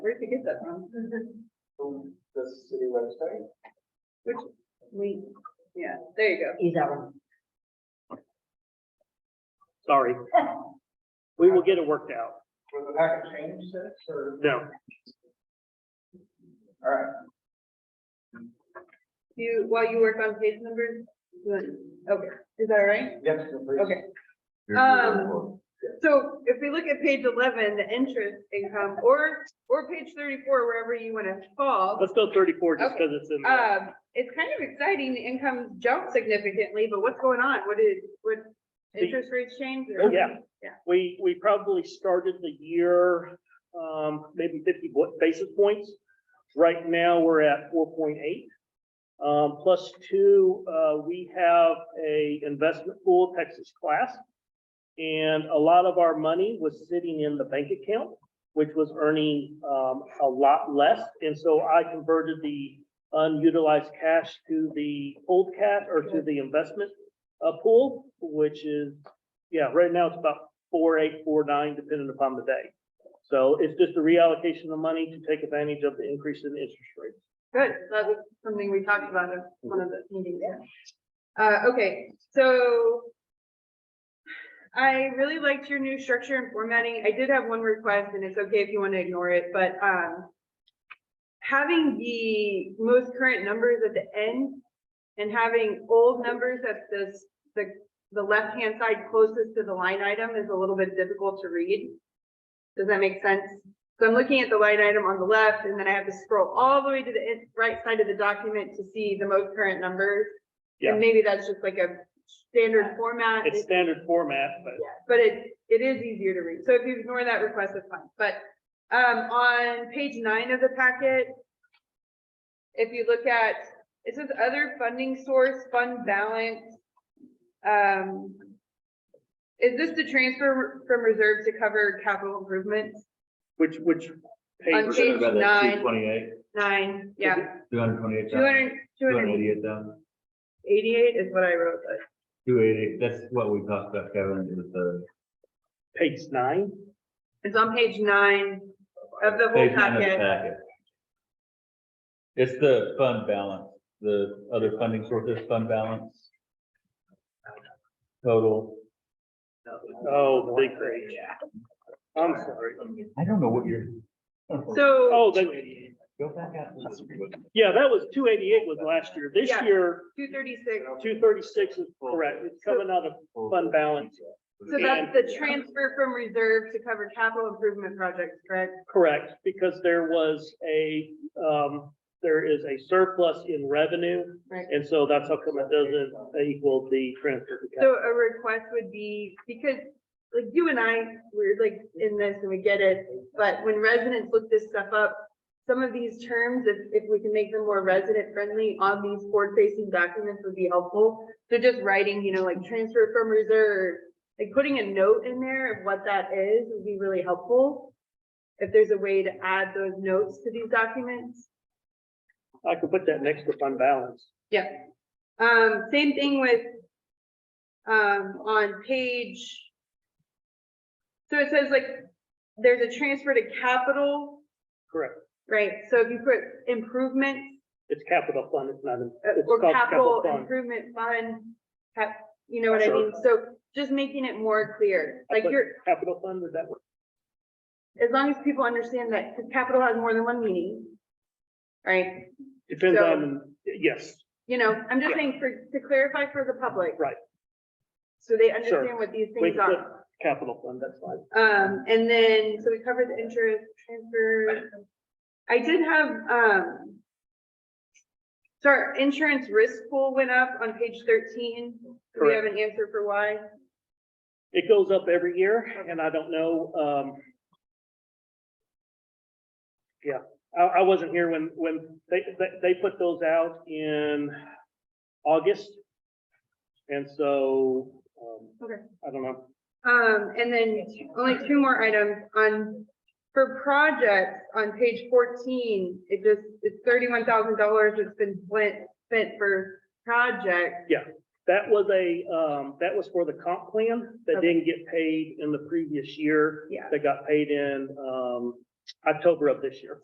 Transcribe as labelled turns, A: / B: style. A: There you go.
B: Use that one.
C: Sorry. We will get it worked out.
D: Was the packet changed since, or,
C: No,
D: all right,
A: You, while you work on page numbers, good. okay, is that all right?
D: yes, please.
A: Okay. Um, so if we look at page eleven, the interest income, or, or page thirty-four, wherever you want to fall.
C: let's go thirty-four just because it's in. there.
A: Um, it's kind of exciting, the income jumped significantly, but what's going on? What is, what, interest rates change? or-
C: Oh, yeah.
A: Yeah.
C: We, we probably started the year, um, maybe fifty bo- basis points. Right now, we're at four point eight. Um, plus two, uh, we have a investment pool, Texas class. And a lot of our money was sitting in the bank account, which was earning, um, a lot less. And so I converted the unutilized cash to the old cash or to the investment, uh, pool, which is yeah, right now it's about four, eight, four, nine, depending upon the day. So it's just a reallocation of money to take advantage of the increase in interest rates.
A: Good, that was something we talked about in one of the meetings. Uh, okay, so I really liked your new structure and formatting. I did have one request and it's okay if you want to ignore it, but, um, having the most current numbers at the end and having old numbers at this, the, the left-hand side closest to the line item is a little bit difficult to read. Does that make sense? So I'm looking at the line item on the left and then I have to scroll all the way to the in- right side of the document to see the most current numbers.
C: Yeah.
A: And maybe that's just like a standard format.
C: It's standard format, but
A: But it, it is easier to read. So if you ignore that request, it's fine. But, um, on page nine of the packet, if you look at, it says other funding source, fund balance. Um, is this the transfer from reserve to cover capital improvements?
C: which, which page,
A: On page nine,
E: Twenty-eight,
A: nine, yeah,
E: two hundred twenty-eight
A: two
E: thousand,
A: hundred, two
E: two hundred
A: hundred
E: eighty-eight thousand,
A: eighty-eight is what I wrote, but.
E: two eighty, that's what we talked about, Kevin, it was the.
C: page nine?
A: It's on page nine of the whole
E: page nine of the
A: packet.
E: packet. It's the fund balance, the other funding sources, fund balance. Total,
C: Oh, big page. I'm sorry.
E: I don't know what you're.
A: So
C: Oh, that,
E: Go back out. to the screen.
C: yeah, that was two eighty-eight was last year. This
A: Yeah.
C: year,
A: two thirty-six,
C: two thirty-six is correct. It's coming out of fund balance.
A: so that's the transfer from reserve to cover capital improvement projects, correct?
C: Correct, because there was a, um, there is a surplus in revenue.
A: Right.
C: And so that's how come it doesn't equal the transfer. to
A: So
C: capital.
A: a request would be, because like you and I, we're like in this and we get it, but when residents look this stuff up, some of these terms, if, if we can make them more resident friendly on these forward facing documents would be helpful. So just writing, you know, like transfer from reserve, like putting a note in there of what that is would be really helpful. If there's a way to add those notes to these documents.
C: I could put that next to fund balance.
A: Yeah, um, same thing with, um, on page. So it says like, there's a transfer to capital,
C: Correct.
A: right? So if you put improvements
C: It's capital fund. It's not, an-
A: uh,
C: it's
A: or
C: called
A: capital
C: capital fund.
A: improvement fund, cap, you know what I
C: Sure.
A: mean? So just making it more clear,
C: I
A: like
C: put
A: you're,
C: Capital fund, would that work?
A: as long as people understand that, because capital has more than one meaning. Right?
C: Depends
A: So-
C: on, yes,
A: You know, I'm just
C: Yeah.
A: saying for, to clarify for the public.
C: Right.
A: So they
C: Sure.
A: understand what these
C: We
A: things
C: can put
A: are.
C: capital fund, that's fine.
A: Um, and then, so we covered the interest transfer. I did have, um. So our insurance risk pool went up on page thirteen. Do we have an answer for why?
C: It goes up every year and I don't know, um. Yeah, I, I wasn't here when, when they, they, they put those out in August. And so, um,
A: Okay.
C: I don't know.
A: Um, and then only two more items on, for projects on page fourteen, it just, it's thirty-one thousand dollars that's been spent, spent for projects.
C: That was a, um, that was for the comp plan that didn't get paid in the previous year.
A: Yeah.
C: That got paid in, um, October of this year.